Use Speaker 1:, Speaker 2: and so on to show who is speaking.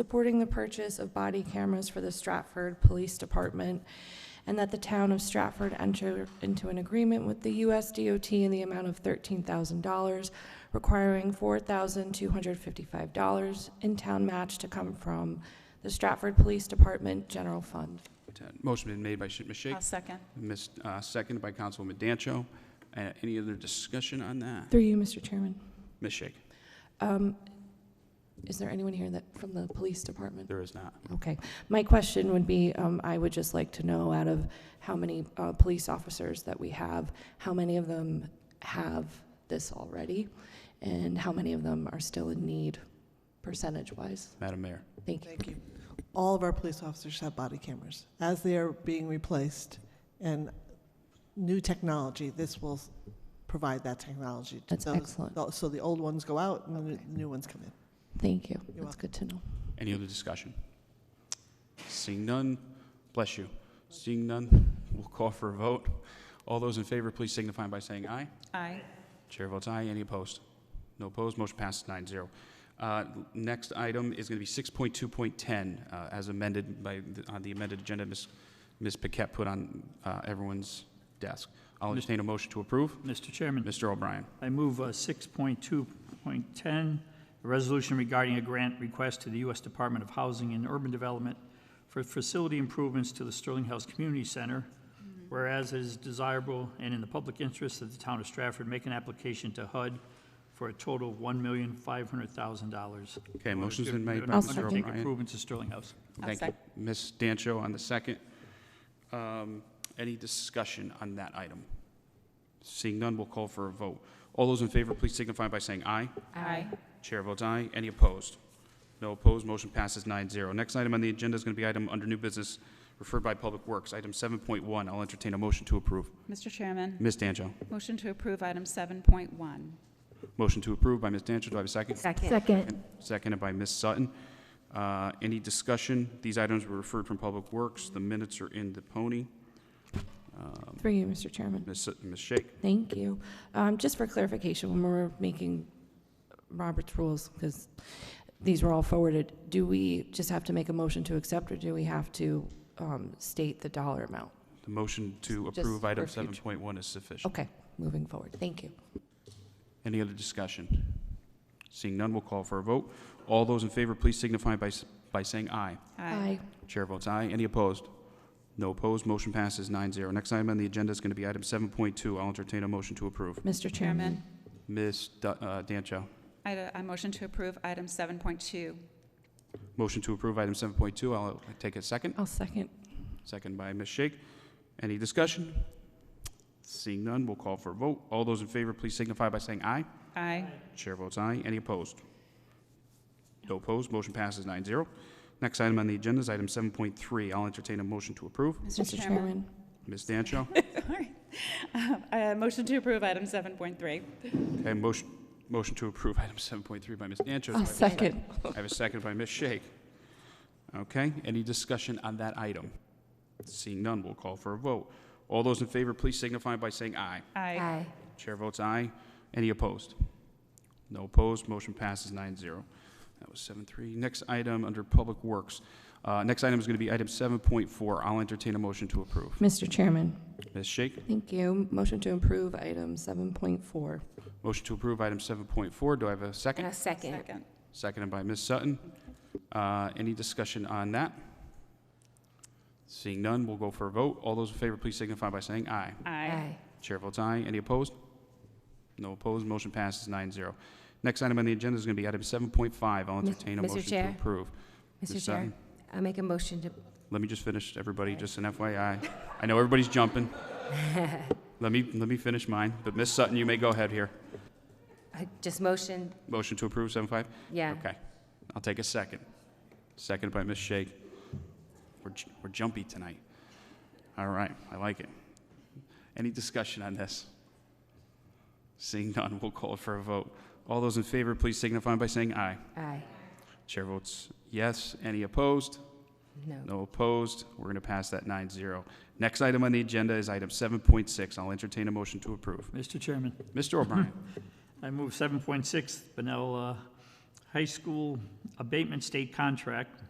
Speaker 1: supporting the purchase of body cameras for the Stratford Police Department, and that the town of Stratford enter into an agreement with the U.S. DOT in the amount of $13,000, requiring $4,255 in town match to come from the Stratford Police Department General Fund.
Speaker 2: Motion been made by Sh- Ms. Shake,
Speaker 3: I'll second.
Speaker 2: Ms., uh, seconded by Councilwoman Dancho. Uh, Any other discussion on that?
Speaker 1: Through you, Mr. Chairman.
Speaker 2: Ms. Shake?
Speaker 1: Um, Is there anyone here that, from the police department?
Speaker 2: There is not.
Speaker 1: Okay. My question would be, um, I would just like to know out of how many uh, police officers that we have, how many of them have this already? And how many of them are still in need, percentage-wise?
Speaker 2: Madam Mayor?
Speaker 1: Thank you.
Speaker 4: Thank you. All of our police officers have body cameras. As they are being replaced and new technology, this will s- provide that technology. to
Speaker 1: That's
Speaker 4: those-
Speaker 1: excellent.
Speaker 4: tho- So the old ones go out and the
Speaker 1: Okay.
Speaker 4: new ones come in.
Speaker 1: Thank you.
Speaker 4: You're
Speaker 1: That's good to know.
Speaker 2: Any other discussion? Seeing none, bless you. Seeing none, we'll call for a vote. All those in favor, please signify by saying aye.
Speaker 3: Aye.
Speaker 2: Chair votes aye. Any opposed? No opposed. Motion passes nine zero. Uh, next item is going to be six point two point ten, uh, as amended by, the- on the amended agenda, Ms. Ms. Paquette put on, uh, everyone's desk. I'll entertain a motion to approve.
Speaker 5: Mr. Chairman,
Speaker 2: Mr. O'Brien.
Speaker 5: I move uh, 6.2.10, a resolution regarding a grant request to the U.S. Department of Housing and Urban Development for facility improvements to the Sterling House Community Center, whereas it is desirable and in the public interest that the town of Stratford make an application to HUD for a total of $1,500,000.
Speaker 2: Okay, motion's been made by
Speaker 1: I'll
Speaker 2: Mr.
Speaker 1: second.
Speaker 5: Make
Speaker 2: O'Brien.
Speaker 5: improvements to Sterling House.
Speaker 3: I'll
Speaker 2: Thank you.
Speaker 3: sec-
Speaker 2: Ms. Dancho on the second. Um, Any discussion on that item? Seeing none, we'll call for a vote. All those in favor, please signify by saying aye.
Speaker 3: Aye.
Speaker 2: Chair votes aye. Any opposed? No opposed, motion passes 9-0. Next item on the agenda is going to be item under new business referred by Public Works, item 7.1. I'll entertain a motion to approve.
Speaker 3: Mr. Chairman,
Speaker 2: Ms. Dancho.
Speaker 3: motion to approve item 7.1.
Speaker 2: Motion to approve by Ms. Dancho. Do I have a second?
Speaker 6: Second.
Speaker 7: Second.
Speaker 2: And Seconded by Ms. Sutton. Uh, Any discussion? These items were referred from Public Works. The minutes are in the pony. Um,
Speaker 1: Through you, Mr. Chairman.
Speaker 2: Ms. Sut- Ms. Shake?
Speaker 1: Thank you. Um, Just for clarification, when we're making Robert's rules, because these were all forwarded, do we just have to make a motion to accept, or do we have to um, state the dollar amount?
Speaker 2: The motion to
Speaker 1: Just
Speaker 2: approve item
Speaker 1: for future.
Speaker 2: 7.1 is sufficient.
Speaker 1: Okay, moving forward. Thank you.
Speaker 2: Any other discussion? Seeing none, we'll call for a vote. All those in favor, please signify by s- by saying aye. Chair votes aye. Any opposed? No opposed. Motion passes 9-0. Next item on the agenda is going to be item 7.2. I'll entertain a motion to approve.
Speaker 1: Mr. Chairman.
Speaker 3: Chairman,
Speaker 2: Ms. Du- uh, Dancho.
Speaker 3: I I motion to approve item 7.2.
Speaker 2: Motion to approve item 7.2. I'll take a second.
Speaker 1: I'll second.
Speaker 2: Second by Ms. Shake. Any discussion? Seeing none, we'll call for a vote. All those in favor, please signify by saying aye.
Speaker 3: Aye.
Speaker 2: Chair votes aye. Any opposed? No opposed. Motion passes 9-0. Next item on the agenda is item 7.3. I'll entertain a motion to approve.
Speaker 1: Mr. Chairman.
Speaker 2: Ms. Dancho.
Speaker 3: Sorry. Um, I motion to approve item 7.3.
Speaker 2: Okay, motion, motion to approve item 7.3 by Ms. Dancho. Do I
Speaker 1: I'll
Speaker 2: have a
Speaker 1: second.
Speaker 2: I have a second by Ms. Shake. Okay, any discussion on that item? Seeing none, we'll call for a vote. All those in favor, please signify by saying aye.
Speaker 3: Aye.
Speaker 2: Chair votes aye. Any opposed? No opposed, motion passes 9-0. That was 7-3. Next item under Public Works. Uh, Next item is going to be item 7.4. I'll entertain a motion to approve.
Speaker 1: Mr. Chairman.
Speaker 2: Ms. Shake,
Speaker 1: Thank you. Motion to approve item 7.4.
Speaker 2: motion to approve item 7.4. Do I have a second?
Speaker 6: A second.
Speaker 3: Second.
Speaker 2: Seconded by Ms. Sutton. Uh, Any discussion on that? Seeing none, we'll go for a vote. All those in favor, please signify by saying aye.
Speaker 3: Aye.
Speaker 2: Chair votes aye. Any opposed? No opposed. Motion passes 9-0. Next item on the agenda is going to be item 7.5. I'll
Speaker 6: Mis-
Speaker 2: entertain a
Speaker 6: Mr.
Speaker 2: motion to
Speaker 6: Chair?
Speaker 2: approve.
Speaker 6: Mr.
Speaker 2: Ms.
Speaker 6: Chair,
Speaker 2: Sutton?
Speaker 6: I make a motion to,
Speaker 2: Let me just finish, everybody, just an FYI. I know everybody's jumping. Let me, let me finish mine, but Ms. Sutton, you may go ahead here.
Speaker 6: I just motion,
Speaker 2: Motion to approve 7.5?
Speaker 6: yeah.
Speaker 2: Okay, I'll take a second. Second by Ms. Shake. We're, j- we're jumpy tonight. All right, I like it. Any discussion on this? Seeing none, we'll call for a vote. All those in favor, please signify by saying aye.
Speaker 6: Aye.
Speaker 2: Chair votes yes. Any opposed?
Speaker 6: No.
Speaker 2: No opposed. We're going to pass that 9-0. Next item on the agenda is item 7.6. I'll entertain a motion to approve.
Speaker 5: Mr. Chairman,
Speaker 2: Mr. O'Brien.
Speaker 5: I move 7.6, Benel uh, High School Abatement State Contract